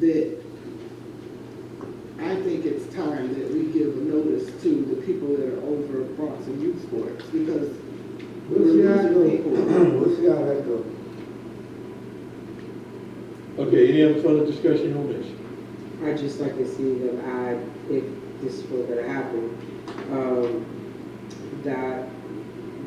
that I think it's time that we give a notice to the people that are over at Bronx and youth sports, because We'll see how it goes. We'll see how that goes. Okay, any other further discussion on this? I just like to see that I, if this were gonna happen, um, that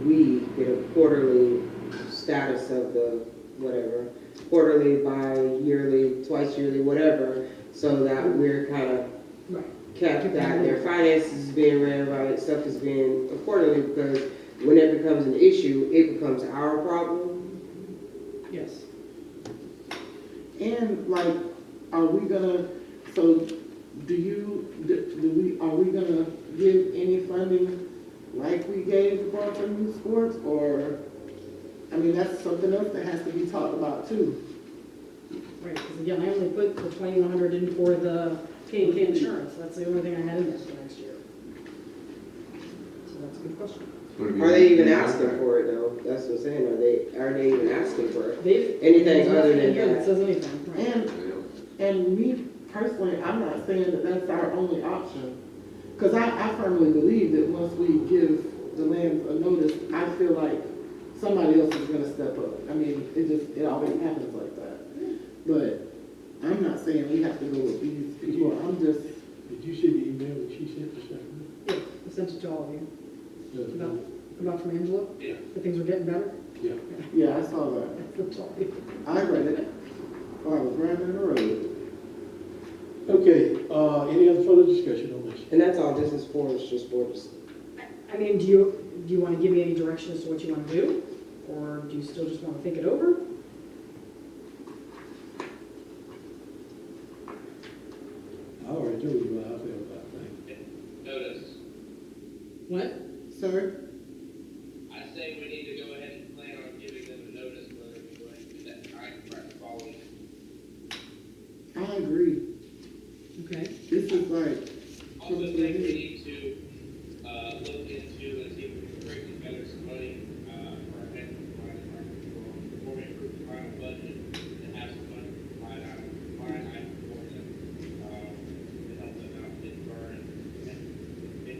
we get a quarterly status of the whatever, quarterly, bi-yearly, twice yearly, whatever, so that we're kind of Right. kept that their finances is being ran right, stuff is being accordingly, because when it becomes an issue, it becomes our problem. Yes. And like, are we gonna, so do you, do do we, are we gonna give any funding like we gave the Boston Youth Sports or? I mean, that's something else that has to be talked about too. Right, because again, I only put the twenty-one hundred in for the K and K insurance, that's the only thing I had in there for next year. So that's a good question. Are they even Mm-hmm. asking for it though? That's what I'm saying, are they, are they even asking for it? They've. Anything there's other nothing than in here that. says anything, right. And, and me personally, I'm not saying that that's our only option. Cause I, I firmly believe that once we give the land a notice, I feel like somebody else is gonna step up. I mean, it just, it always happens like that. But I'm not saying we have to go with these people, I'm just, Did you see the email that she sent this afternoon? Yeah, I sent it to all of you, about, about from Angela, Yeah, that things were getting better, yeah. yeah, I saw that. that's all. I read it, while I was driving in the road. Okay, uh, any other further discussion on this? And that's all this is for, it's just for this. I mean, do you, do you want to give me any direction as to what you want to do, or do you still just want to think it over? I already told you what I feel about things. Notice, What? Sir, I say we need to go ahead and plan on giving them a notice whether we go ahead and do that time frame following. I agree, Okay. this is like, Also think we need to, uh, look into and see if we can bring together some money, uh, for our next line item, before we approve the final budget, and have some money for the line item, line item for them, um, to help them out in burn and, and, and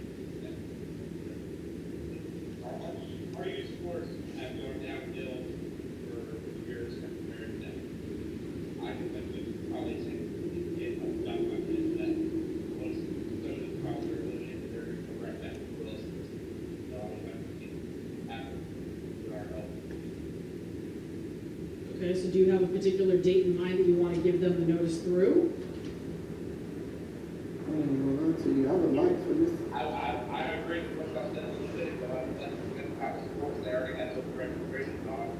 Our use force have gone downhill for years compared to that. I think that would probably say, get a lot of money that was thrown in the crowd or eliminated or right back to us. Um, I think after our help. Okay, so do you have a particular date in mind that you want to give them the notice through? I don't know, to you, I would like for this I, I, I agree with what I said a little bit, but I think that power sports, they already had those restoration on,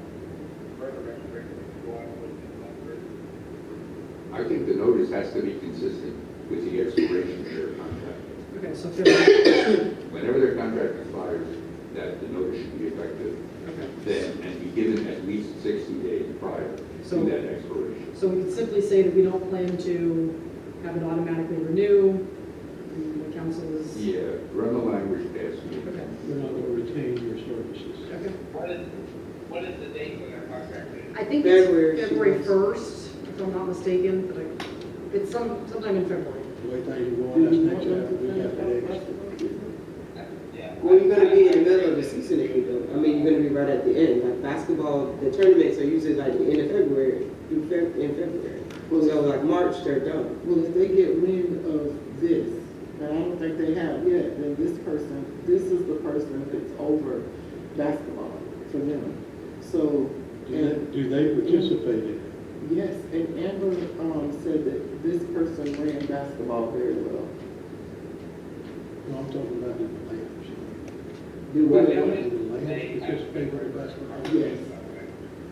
further restoration going with the, I think the notice has to be consistent with the expiration of their contract. Okay, so February. Whenever their contract expires, that the notice should be effective Okay. then and be given at least 60 days prior to So- that expiration. So we could simply say that we don't plan to have it automatically renew, and the council is. Yeah, run the language past me. Okay. We're not gonna retain your services. Okay. What is, what is the date when their contract is? I think it's February, she February wants- first, if I'm not mistaken, but I- it's some, sometime in February. The way things are going, that's Did you next want them time, to we finish have the that next. question? Yeah. Well, you're gonna be in the middle of the season if you don't, I mean, you're gonna be right at the end, like basketball, the tournaments are usually like the end of February, through Feb, in February. Well, so like March, they're done. Well, if they get wind of this, and I don't think they have yet, then this person, this is the person that's over basketball for them. So, Do and, they- do they participate in it? yes, and Amber, um, said that this person ran basketball very well. No, I'm talking about the layers. Do Well, what? yeah. Do the layers participate in basketball? Yes,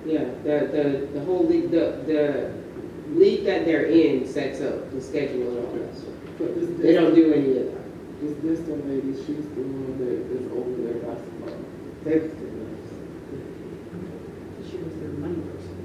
Yeah, the, the, the whole league, the, the league that they're in sets up the schedule and all that stuff. but this, They don't this, do any of that. this distant lady, she's the one that is over their basketball. They, She was their money person.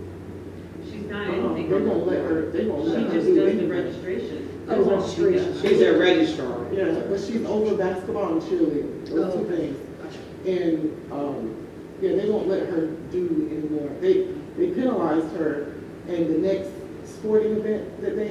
She's not Uh-uh, anything. They're gonna let her, they won't She let her just do does the anything. registration. Oh, registration. she's their registrar. Yeah, but she's over basketball and cheerleading, those two Oh. things. Gotcha. And, um, yeah, they won't let her do anymore. They, they penalized her and the next sporting event that they